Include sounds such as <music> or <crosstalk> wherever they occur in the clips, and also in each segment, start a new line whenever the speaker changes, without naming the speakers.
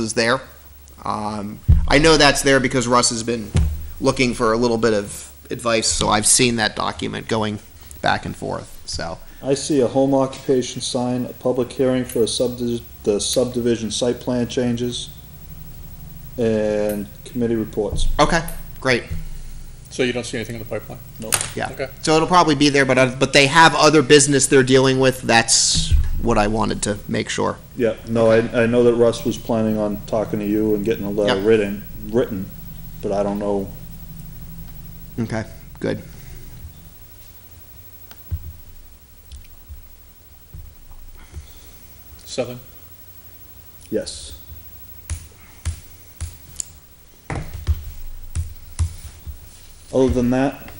is there. Um, I know that's there because Russ has been looking for a little bit of advice, so I've seen that document going back and forth, so.
I see a home occupation sign, a public hearing for a subdi- the subdivision site plan changes, and committee reports.
Okay, great.
So you don't see anything in the pipeline?
No.
Yeah.
Okay.
So it'll probably be there, but, I- but they have other business they're dealing with, that's what I wanted to make sure.
Yeah, no, I, I know that Russ was planning on talking to you and getting a letter
Yeah.
written, written, but I don't know.
Okay, good.
Seven?
Yes. Other than that,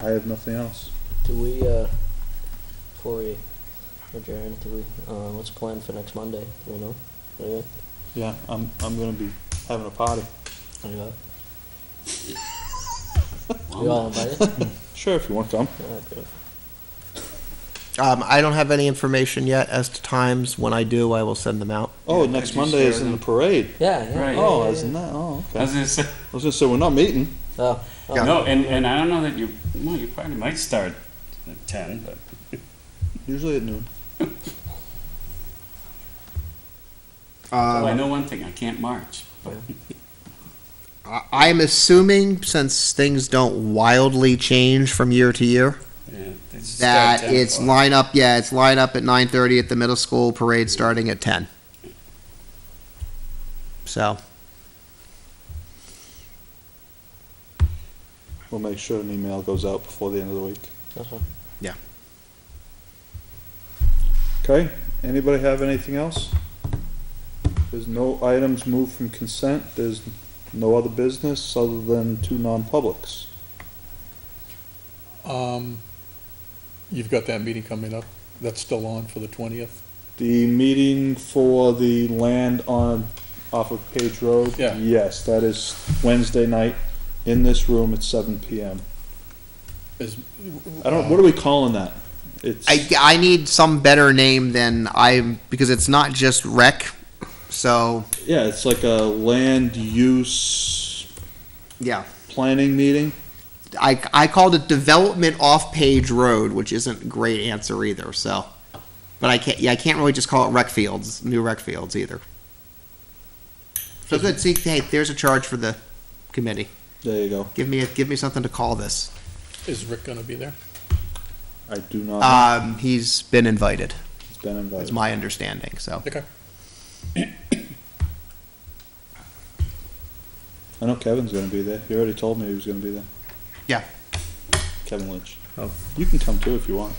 I have nothing else.
Do we, uh, before we adjourn, do we, uh, what's the plan for next Monday? Do we know? Anything?
Yeah, I'm, I'm gonna be having a party.
<laughs>
Anything? We all
<laughs>
invited? Alright,
Sure, if you want to come.
beautiful.
Um, I don't have any information yet as to times. When I do, I will send them out.
Oh,
Yeah,
next
could you
Monday is
share
in the
them?
parade.
Yeah, yeah.
Right.
yeah,
Oh,
yeah,
isn't
yeah.
that, oh,
I was
okay.
gonna say,
I was gonna say, we're not meeting.
Oh,
Yeah.
oh,
no, and, and I don't know that you, well, you probably might start at ten, but.
Usually at noon.
Um,
Well, I know one thing, I can't march, but
I- I'm assuming since things don't wildly change from year to year,
yeah, they just
that
start 10
it's
o'clock.
line up. Yeah, it's line up at nine thirty at the middle school parade starting at ten. So
We'll make sure an email goes out before the end of the week.
that's fine.
Okay, anybody have anything else? There's no items moved from consent, there's no other business other than two non-publics.
Um, you've got that meeting coming up, that's still on for the twentieth?
The meeting for the land on, off of Page Road?
Yeah.
Yes, that is Wednesday night in this room at seven PM.
Is,
I don't, what are we calling that? It's,
I, I need some better name than I because it's not just rec. So
yeah, it's like a land use
yeah,
planning meeting.
I I called it development off page road, which isn't a great answer either. So, but I can't yeah I can't really just call it rec fields new rec fields either. So good. See, hey, there's a charge for the committee.
There you go.
Give me a, give me something to call this.
is Rick gonna be there?
I do not, know.
Um, he's been invited.
it's been
It's
invited.
my understanding. So
Okay.
I know Kevin's gonna be there. He already told me he was gonna be there.
yeah,
Kevin Lynch.
Oh.
You can come too if you want.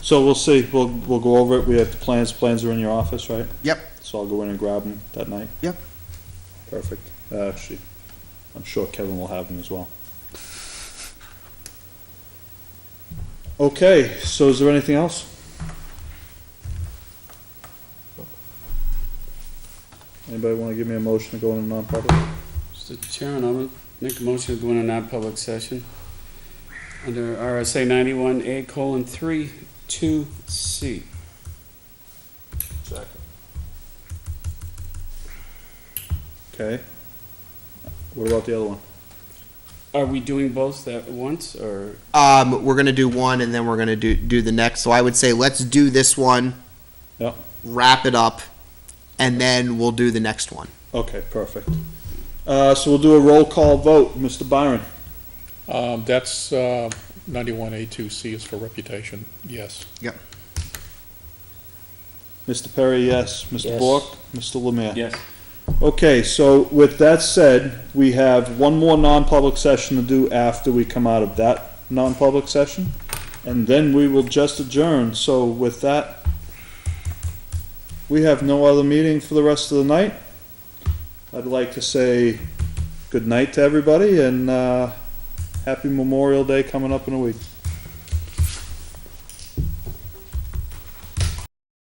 So we'll see, we'll, we'll go over it, we have the plans, plans are in your office, right?
Yep.
So I'll go in and grab them that night?
Yep.
Perfect, Uh, actually, I'm sure Kevin will have them as well. Okay, so is there anything else? Anybody wanna give me a motion to go into non-public?
Mr. Chairman, I'll make a motion to go into non-public session under RSA ninety-one A colon three two C.
Okay. What about the other one?
Are we doing both at once, or?
um, we're gonna do one and then we're gonna do do the next. So I would say let's do this one.
Yep.
Wrap it up, and then we'll do the next one.
Okay, perfect. Uh, so we'll do a roll call vote. Mr. Byron?
Um, that's, uh, ninety-one A two C is for reputation, yes.
Mr. Perry, yes. Mr.
Yes.
Bork? Mr. Lemire?
Yes.
Okay, so with that said, we have one more non-public session to do after we come out of that non-public session. And then we will just adjourn. So with that, we have no other meeting for the rest of the night. I'd like to say good night to everybody and, uh, happy Memorial Day coming up in a week.